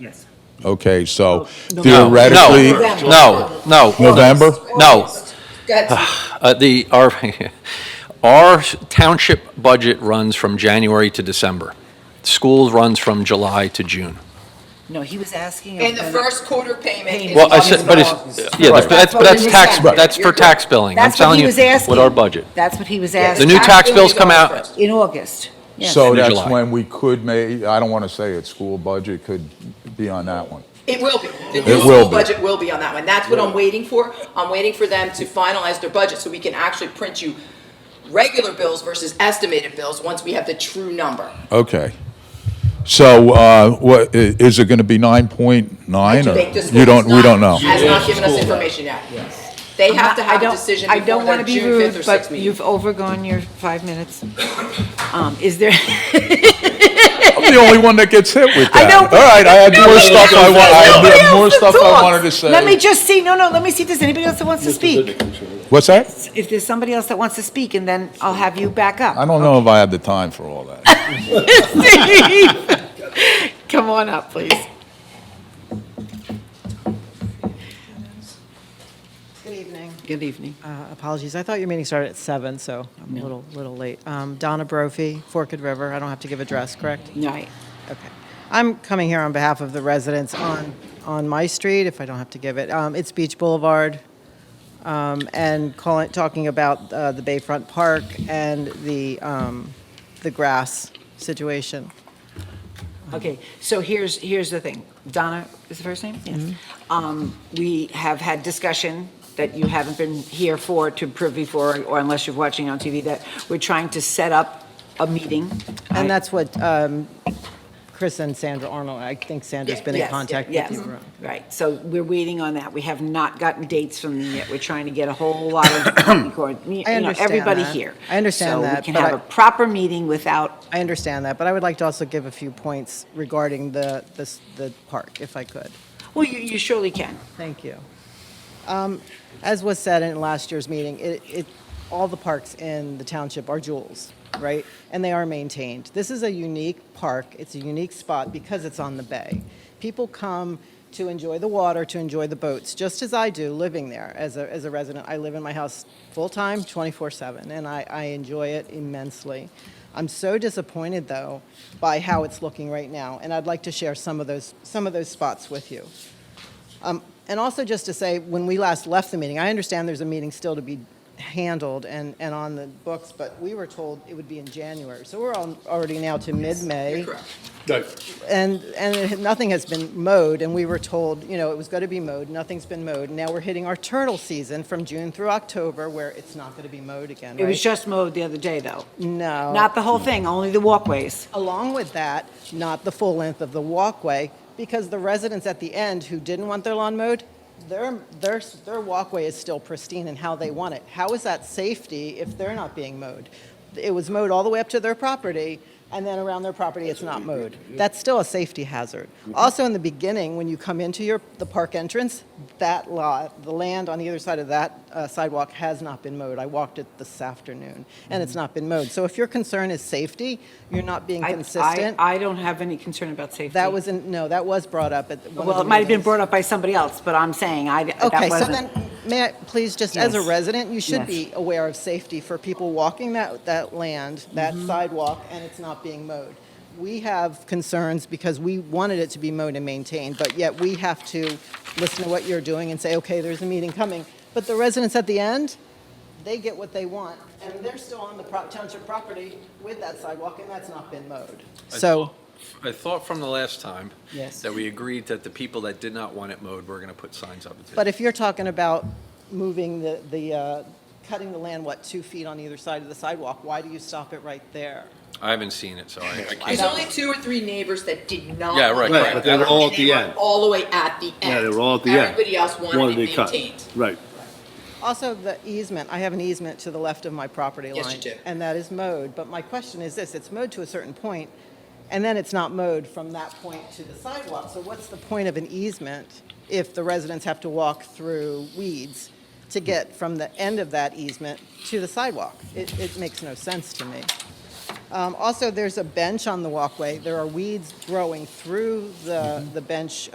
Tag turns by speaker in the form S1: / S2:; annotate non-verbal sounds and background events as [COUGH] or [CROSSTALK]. S1: Yes.
S2: Okay, so
S3: No,
S2: theoretically,
S3: No, no, no.
S2: November?
S3: No.
S4: That's-
S3: Uh, The, our, [LAUGHS] our township budget runs from January to December. Schools runs from July to June.
S1: No, he was asking.
S4: And the
S1: about-
S4: first quarter payment is.
S3: Well, I
S4: August
S3: said, but it's,
S4: first.
S3: yeah,
S2: Right.
S3: that's, but that's tax,
S4: Right.
S3: that's for tax billing. I'm
S1: That's what
S3: telling
S1: he
S3: you,
S1: was asking.
S3: with our budget.
S1: That's what he was
S4: Yeah,
S3: The
S1: asking,
S3: new tax
S4: bill
S3: bills
S4: is
S3: come
S4: August
S3: out-
S4: first.
S1: in August. Yes.
S2: so
S3: In
S2: that's
S3: July.
S2: when we could may, I don't want to say it, school budget could be on that one.
S4: It will be. The new
S2: It will
S4: school
S2: be.
S4: budget will be on that one. That's what I'm waiting for. I'm waiting for them to finalize their budget so we can actually print you regular bills versus estimated bills once we have the true number.
S2: Okay. So uh, what, i- is it going to be 9.9
S4: To
S2: or?
S4: make this
S2: You don't, we don't know.
S4: Has not given us information yet. They have to
S5: I
S4: have a
S5: don't-
S4: decision
S5: I don't
S4: before
S5: want
S4: their
S5: to be
S4: June fifth or
S5: rude,
S4: sixth
S5: but
S4: meeting.
S5: you've overgone your five minutes. Um, Is
S2: [LAUGHS]
S5: there,
S2: I'm the only one that gets hit with
S5: I
S2: that.
S5: know,
S2: All
S5: but-
S2: right, I had more stuff I wa, I
S5: Nobody
S2: had more
S5: else
S2: stuff I
S5: talks.
S2: wanted to say.
S5: Let me just see, no, no, let me see, does anybody else that wants to speak?
S2: What's that?
S5: If there's somebody else that wants to speak, and then I'll have you back
S2: I
S5: up.
S2: don't know if I have the time for all that.
S5: [LAUGHS] Come on up, please.
S6: Good evening.
S5: Good evening.
S6: Uh, Apologies, I thought your meeting started at seven, so I'm a little, little late. Um, Donna Brophy, Forked River, I don't have to give address, correct?
S5: Night.
S6: Okay. I'm coming here on behalf of the residents on, on my street, if I don't have to give it. Um, It's Beach Boulevard, um, and calling, talking about uh, the Bayfront Park and the, um, the grass situation.
S5: Okay, so here's, here's the thing. Donna is the first name? Yes.
S6: Mm-hmm.
S5: Um, We have had discussion that you haven't been here for, to privy for, or unless you're watching on TV, that we're trying to set up a meeting.
S6: And that's what um, Chris and Sandra Arnold, I think Sandra's been in
S5: Yes,
S6: contact
S5: yes,
S6: with you.
S5: yes, Right, so we're waiting on that. We have not gotten dates from them yet. We're trying to get a whole lot
S6: [COUGHS]
S5: of, or, you
S6: I
S5: know,
S6: understand
S5: everybody
S6: that.
S5: here.
S6: I understand
S5: So we
S6: that,
S5: can
S6: but
S5: have
S6: I-
S5: a proper meeting without,
S6: I understand that, but I would like to also give a few points regarding the, the, the park, if I could.
S5: well, you, you surely can.
S6: Thank you. Um, As was said in last year's meeting, it, it, all the parks in the township are jewels, right? And they are maintained. This is a unique park, it's a unique spot because it's on the bay. People come to enjoy the water, to enjoy the boats, just as I do, living there as a, as a resident. I live in my house full-time, 24/7, and I, I enjoy it immensely. I'm so disappointed, though, by how it's looking right now, and I'd like to share some of those, some of those spots with you. And also just to say, when we last left the meeting, I understand there's a meeting still to be handled and, and on the books, but we were told it would be in January. So we're al- already now to mid-May.
S4: correct.
S6: And, and it- nothing has been mowed, and we were told, you know, it was going to be mowed, nothing's been mowed. Now we're hitting our turtle season from June through October where it's not going to be mowed again,
S5: It was
S6: right? Oh.
S5: just mowed the other day, though.
S6: No.
S5: Not the whole thing, only the walkways.
S6: Along with that, not the full length of the walkway, because the residents at the end who didn't want their lawn mowed, their, their, their walkway is still pristine and how they want it. How is that safety if they're not being mowed? It was mowed all the way up to their property, and then around their property, it's not mowed. That's still a safety hazard. Also, in the beginning, when you come into your, the park entrance, that lot, the land on the other side of that uh, sidewalk has not been mowed. I walked it this afternoon, and it's not been mowed. So if your concern is safety, you're not being
S5: I- I-
S6: Oh, consistent.
S5: I don't have any concern about safety.
S6: That was, in- no, that was brought up at one of the
S5: Well, it might have been
S6: meetings.
S5: brought up by somebody else, but I'm saying I, that
S6: Okay, so
S5: wasn't.
S6: then, may I, please, just as a
S5: Yes.
S6: resident, you should
S5: Yes.
S6: be aware of safety for people walking that, that land, that
S5: Mm-hmm.
S6: sidewalk, and it's not being mowed. We have concerns because we wanted it to be mowed and maintained, but yet we have to listen to what you're doing and say, okay, there's a meeting coming. But the residents at the end, they get what they want, and they're still on the pro- township property with that sidewalk, and that's not been mowed. So,
S3: I thought from the last time.
S6: Yes.
S3: That we agreed that the people that did not want it mowed were gonna put signs up.
S6: but if you're talking about moving the, the, uh, cutting the land, what, two feet on either side of the sidewalk, why do you stop it right there?
S3: I haven't seen it, so I I
S4: There's
S3: can't.
S4: only two or three neighbors that did not.
S3: Yeah, right,
S4: want
S3: right,
S4: it.
S3: but they were
S7: all
S4: And
S7: at the
S4: they were
S7: end.
S4: All the way at the end.
S7: Yeah, they were all at the end.
S4: Everybody else wanted
S7: Wanted
S4: it
S7: it cut.
S4: maintained.
S7: Right.
S6: Also, the easement, I have an easement to the left of my property line.
S4: Yes, you do.
S6: And that is mowed, but my question is this, it's mowed to a certain point, and then it's not mowed from that point to the sidewalk. So what's the point of an easement if the residents have to walk through weeds to get from the end of that easement to the sidewalk? It, it makes no sense to me. Um, Also, there's a bench on the walkway. There are weeds growing through the the bench